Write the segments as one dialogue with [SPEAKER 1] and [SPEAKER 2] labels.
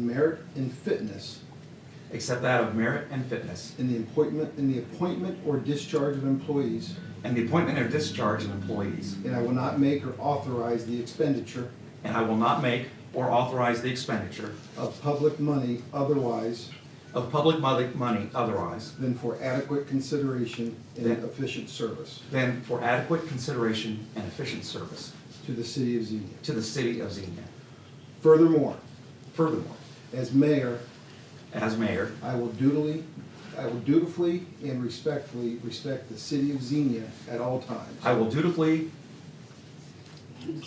[SPEAKER 1] merit and fitness
[SPEAKER 2] except that of merit and fitness,
[SPEAKER 1] in the appointment, in the appointment or discharge of employees,
[SPEAKER 2] and the appointment or discharge of employees,
[SPEAKER 1] and I will not make or authorize the expenditure
[SPEAKER 2] and I will not make or authorize the expenditure
[SPEAKER 1] of public money otherwise
[SPEAKER 2] of public mo- money otherwise
[SPEAKER 1] than for adequate consideration and
[SPEAKER 2] Then-
[SPEAKER 1] efficient service
[SPEAKER 2] than for adequate consideration and efficient service
[SPEAKER 1] to the city of Xenia.
[SPEAKER 2] to the city of Xenia.
[SPEAKER 1] Furthermore,
[SPEAKER 2] Furthermore,
[SPEAKER 1] as mayor,
[SPEAKER 2] as mayor,
[SPEAKER 1] I will dutifully, I will dutifully and respectfully respect the city of Xenia at all
[SPEAKER 2] I
[SPEAKER 1] times
[SPEAKER 2] will dutifully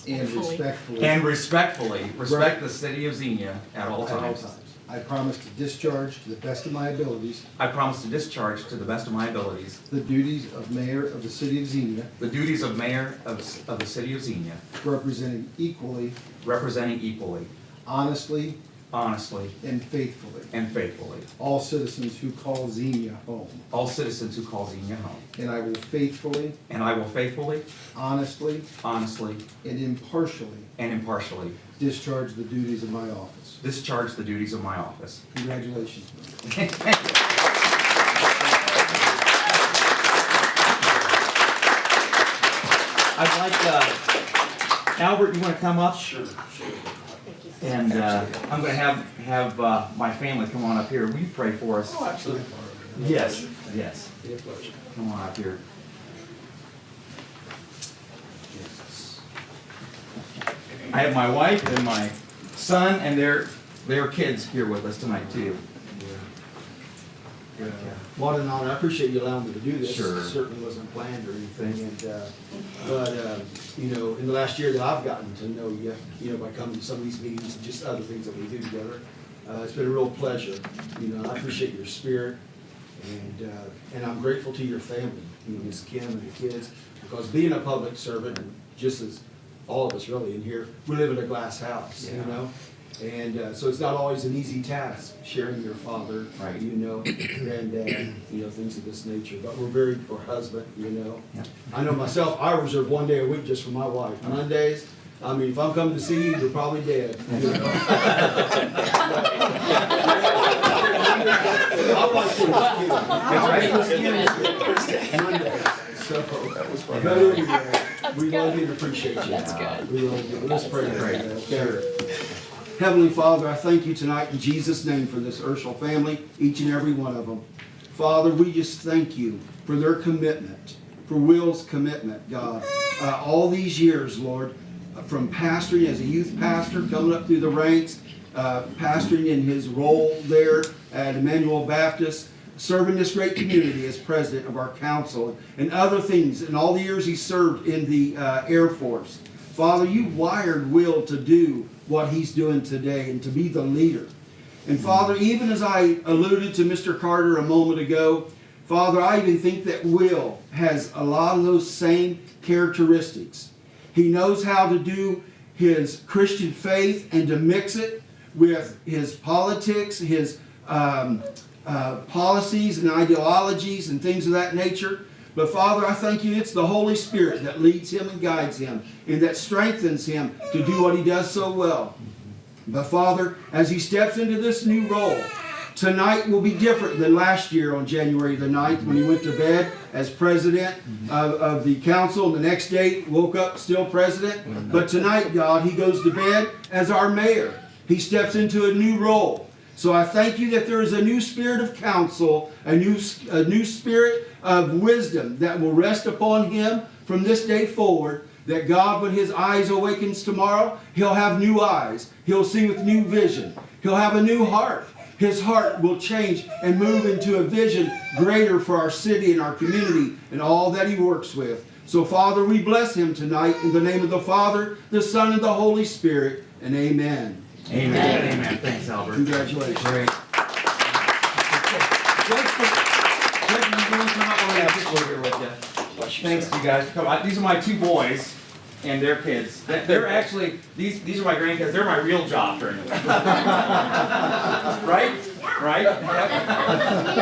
[SPEAKER 1] and respectfully
[SPEAKER 2] and respectfully respect the city of Xenia at all
[SPEAKER 1] at all
[SPEAKER 2] times.
[SPEAKER 1] times. I promise to discharge to the best of my abilities
[SPEAKER 2] I promise to discharge to the best of my abilities
[SPEAKER 1] the duties of mayor of the city of Xenia,
[SPEAKER 2] the duties of mayor of of the city of Xenia,
[SPEAKER 1] representing equally,
[SPEAKER 2] representing equally,
[SPEAKER 1] honestly,
[SPEAKER 2] honestly,
[SPEAKER 1] and faithfully
[SPEAKER 2] and faithfully
[SPEAKER 1] all citizens who call Xenia home.
[SPEAKER 2] all citizens who call Xenia home.
[SPEAKER 1] And I will faithfully,
[SPEAKER 2] And I will faithfully,
[SPEAKER 1] honestly,
[SPEAKER 2] honestly,
[SPEAKER 1] and impartially
[SPEAKER 2] and impartially
[SPEAKER 1] discharge the duties of my office.
[SPEAKER 2] discharge the duties of my office.
[SPEAKER 1] Congratulations. Mayor.
[SPEAKER 2] I'd like, uh, Albert, you wanna come up? Sure, sure. And, uh, I'm gonna have, have, uh, my family come on up here. Will you pray for us? Oh, absolutely. Yes, yes. Come on up here. I have my wife and my son and their, their kids here with us tonight too.
[SPEAKER 3] What an honor. I appreciate you allowing me to do this.
[SPEAKER 2] Sure.
[SPEAKER 3] It Certainly wasn't planned or anything, and, uh, but, uh, you know, in the last year that I've gotten to know you, you know, by coming to some of these meetings and just other things that we do together, uh, it's been a real pleasure. You know, I appreciate your spirit, and, uh, and I'm grateful to your family, you know, Ms. Kim and the kids, because being a public servant, and just as all of us really in here, we live in a glass house, you
[SPEAKER 2] Yeah.
[SPEAKER 3] know? And, uh, so it's not always an easy task, sharing your father,
[SPEAKER 2] Right.
[SPEAKER 3] you know, and, uh, you know, things of this nature, but we're married for husband, you know.
[SPEAKER 2] Yeah.
[SPEAKER 3] I know myself, I reserve one day a week just for my wife, Mondays, I mean, if I'm coming to see you, you're probably dead, you know. I like to see you.
[SPEAKER 2] That's right.
[SPEAKER 3] Mondays. So, but anyway, we love you and appreciate you. That's good. We love you. Let's pray.
[SPEAKER 2] Great.
[SPEAKER 3] Sure. Heavenly Father, I thank you tonight in Jesus' name for this Urshel family, each and every one of them. Father, we just thank you for their commitment, for Will's commitment, God. Uh, all these years, Lord, uh, from pastoring as a youth pastor, coming up through the ranks, uh, pastoring in his role there at Emmanuel Baptist, serving this great community as president of our council and other things, and all the years he served in the uh, Air Force. Father, you wired Will to do what he's doing today and to be the leader. And Father, even as I alluded to Mr. Carter a moment ago, Father, I even think that Will has a lot of those same characteristics. He knows how to do his Christian faith and to mix it with his politics, his um, uh, policies and ideologies and things of that nature. But Father, I thank you, it's the Holy Spirit that leads him and guides him and that strengthens him to do what he does so well. But Father, as he steps into this new role, tonight will be different than last year on January the 9th when he went to bed as president of, of the council. The next day, woke up still president. But tonight, God, he goes to bed as our mayor. He steps into a new role. So I thank you that there is a new spirit of counsel, a new, a new spirit of wisdom that will rest upon him from this day forward. That God, when his eyes awakens tomorrow, he'll have new eyes. He'll see with new vision. He'll have a new heart. His heart will change and move into a vision greater for our city and our community and all that he works with. So, Father, we bless him tonight in the name of the Father, the Son, and the Holy Spirit. And amen.
[SPEAKER 2] Amen, amen. Thanks, Albert.
[SPEAKER 3] Congratulations.
[SPEAKER 2] Great. Thanks, you guys. for coming. I- These are my two boys and their kids. They're- They're actually, these, these are my grandkids. They're my real job during the week. Right? Right? Yep.